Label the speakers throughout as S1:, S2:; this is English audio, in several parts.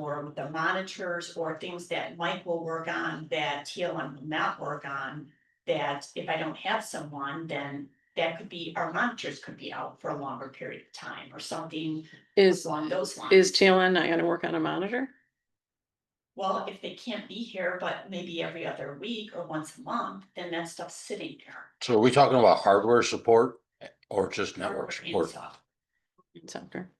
S1: or the monitors or things that Mike will work on that TLM will not work on. That if I don't have someone, then that could be, our monitors could be out for a longer period of time or something
S2: Is,
S1: along those lines.
S2: is TLN not gonna work on a monitor?
S1: Well, if they can't be here, but maybe every other week or once a month, then that stuff's sitting there.
S3: So are we talking about hardware support eh, or just network
S1: Hardware and
S3: support?
S1: software.
S2: It's after.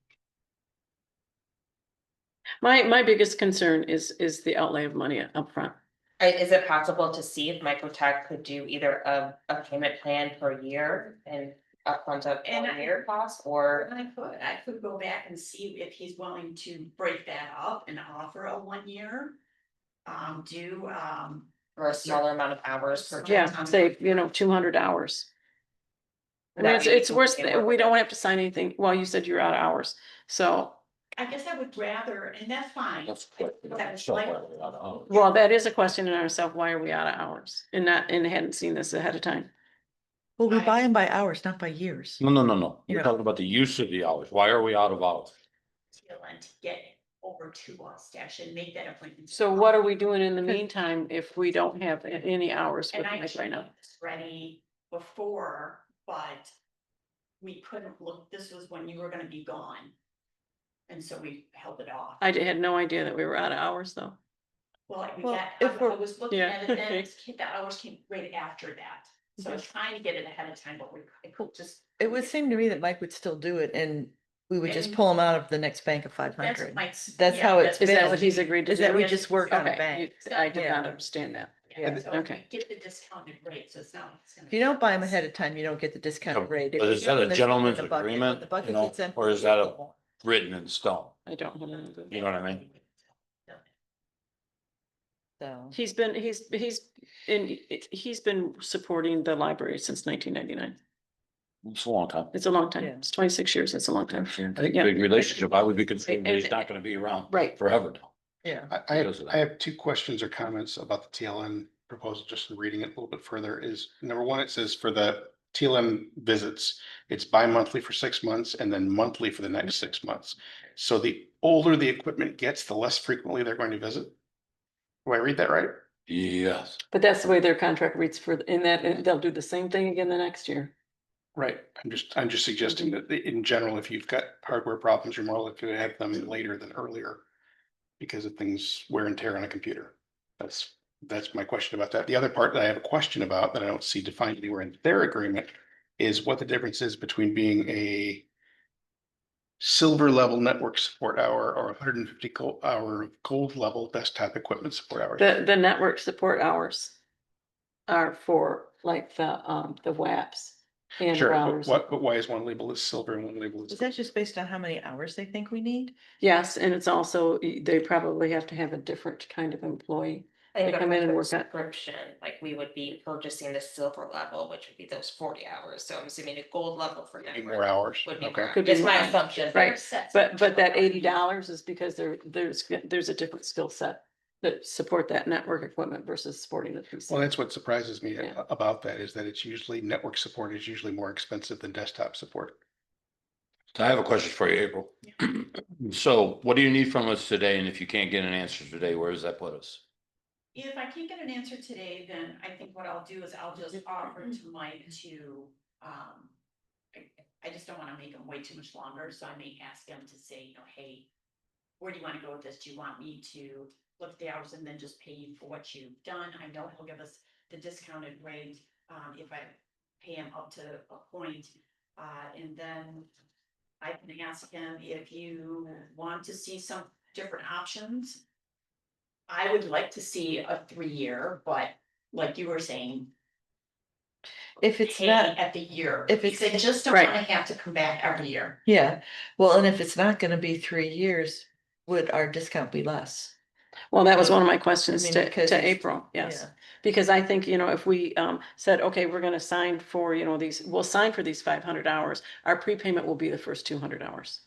S2: My, my biggest concern is, is the outlay of money upfront.
S4: I- Is it possible to see if Microtech could do either a, a payment plan per year and upfront of
S1: And I-
S4: one year cost or?
S1: And I could, I could go back and see if he's willing to break that up and offer a one year. Um, do, um,
S4: Or a smaller amount of hours per?
S1: Yeah.
S2: Yeah, say, you know, two hundred hours. I mean, it's, it's worse, than- we don't have to sign anything. Well, you said you're out of hours, so,
S1: I guess I would rather, and that's fine.
S3: That's what-
S1: That was
S3: so
S1: like-
S3: what we ought to own.
S2: well, that is a question in ourselves. Why are we out of hours? And not, and hadn't seen this ahead of time.
S5: Well, we
S1: I-
S5: buy them by hours, not by years.
S3: No, no, no, no. You're
S5: Yeah.
S3: talking about the use of the hours. Why are we out of hours?
S1: Dylan to get over to Wabash and make that appointment.
S2: So what are we doing in the meantime if we don't have a- any hours with
S1: And I
S2: Mike right now?
S1: was ready before, but we couldn't look, this was when you were gonna be gone. And so we held it off.
S2: I d- had no idea that we were out of hours though.
S1: Well, like, we
S5: Well,
S1: got, I
S5: if we're-
S1: I was looking
S2: Yeah.
S1: at it, then it's- the hours came right after that. So I
S2: Mhm.
S1: was trying to get it ahead of time, but we, I could just.
S5: It would seem to me that Mike would still do it and we would just
S1: And-
S5: pull him out of the next bank of five
S1: That's
S5: hundred.
S1: Mike's.
S5: That's
S1: yeah,
S5: how it's
S2: Is that
S5: been.
S2: what he's agreed to
S5: Is
S2: do?
S5: that we
S1: yeah,
S5: just work on a
S2: Okay,
S5: bank.
S2: you- I did not
S5: Yeah.
S2: understand that.
S1: yeah, so we
S2: okay.
S1: Get the discounted rate, so it's not. it's gonna
S5: If you
S1: be-
S5: don't buy them ahead of time, you don't get the discounted rate. If
S3: But
S5: you
S3: is
S5: give
S3: that a
S5: 'em the-
S3: gentleman's
S5: the bucket,
S3: agreement,
S5: the bucket
S3: you know,
S5: gets empty,
S3: or is that a- Written in stone.
S2: I don't. remember.
S3: You know what I mean?
S5: So,
S2: He's been, he's, he's, and he's been supporting the library since nineteen ninety-nine.
S3: It's a long time.
S2: It's a long time.
S5: Yeah.
S2: It's twenty-six years. It's a long time.
S3: I think
S2: Yeah.
S3: big relationship. I would be concerned that
S2: And-
S3: he's not gonna be around
S2: Right.
S3: forever now.
S5: yeah,
S6: I, I have,
S3: Because of that.
S6: I have two questions or comments about the TLN proposal, just in reading it a little bit further is, number one, it says for the TLM visits, it's bi-monthly for six months and then monthly for the next six months. So the older the equipment gets, the less frequently they're going to visit. Do I read that right?
S3: Yes.
S2: But that's the way their contract reads for, in that, and they'll do the same thing again the next year.
S6: Right. I'm just, I'm just
S2: Mm-hmm.
S6: suggesting that the- in general, if you've got hardware problems, you're more likely to have them later than earlier because of things wear and tear on a computer. That's, that's my question about that. The other part that I have a question about that I don't see defined anywhere in their agreement is what the difference is between being a silver level network support hour or hundred and fifty hour of gold level desktop equipment support hours.
S2: The, the network support hours are for like the, um, the WAPs and
S6: Sure,
S2: routers.
S6: but what, but why is one label is silver and one label is?
S5: is that just based on how many hours they think we need?
S2: Yes, and it's also, y- they probably have to have a different kind of employee.
S4: They
S2: come in and work out-
S4: Subscription, like we would be purchasing the silver level, which would be those forty hours. So I'm assuming a gold level for
S6: Eight
S4: network
S6: More hours.
S4: Would be
S6: Okay.
S4: more.
S2: Could be
S4: It's my
S2: more.
S4: assumption.
S2: Right.
S1: Sets
S2: But, but that
S1: different
S2: eighty dollars is because there, there's, there's a different skill set that support that network equipment versus supporting the PC.
S6: Well, that's what surprises me
S2: Yeah.
S6: a- about that is that it's usually network support is usually more expensive than desktop support.
S3: I have a question for you, April. So what do you need from us today? And if you can't get an answer today, where does that put us?
S1: If I can't get an answer today, then I think what I'll do is I'll just offer to Mike to, um. I, I just don't wanna make him wait too much longer, so I may ask him to say, you know, hey. Where do you wanna go with this? Do you want me to look at the hours and then just pay you for what you've done? I know he'll give us the discounted rate, um, if I pay him up to a point. Uh, and then I can ask him if you want to see some different options. I would like to see a three-year, but like you were saying.
S5: If it's
S1: pay
S5: not,
S1: At the year.
S5: if
S1: because
S5: it's-
S1: I just don't
S2: Right.
S1: wanna have to come back every year.
S5: yeah, well, and if it's not gonna be three years, would our discount be less?
S2: Well, that was one of my
S5: I
S2: questions
S5: mean,
S2: to,
S5: because
S2: to
S5: it's-
S2: April, yes.
S5: yeah.
S2: Because I think, you know, if we um said, okay, we're gonna sign for, you know, these, we'll sign for these five hundred hours, our prepayment will be the first two hundred hours.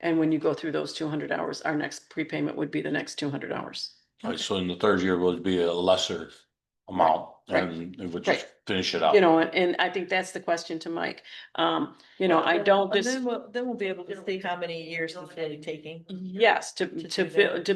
S2: And when you go through those two hundred hours, our next prepayment would be the next two hundred hours.
S3: Right, so in the third year would be a lesser amount
S2: Right.
S3: and it would
S2: Right.
S3: just finish it out.
S2: You know, and, and I think that's the question to Mike. Um, you know, I don't,
S5: And
S2: this,
S5: Then we'll, then we'll be able to see how many years it's really taking.
S2: yes, to,
S5: To
S2: to,
S5: do
S2: buil-
S5: that.
S2: to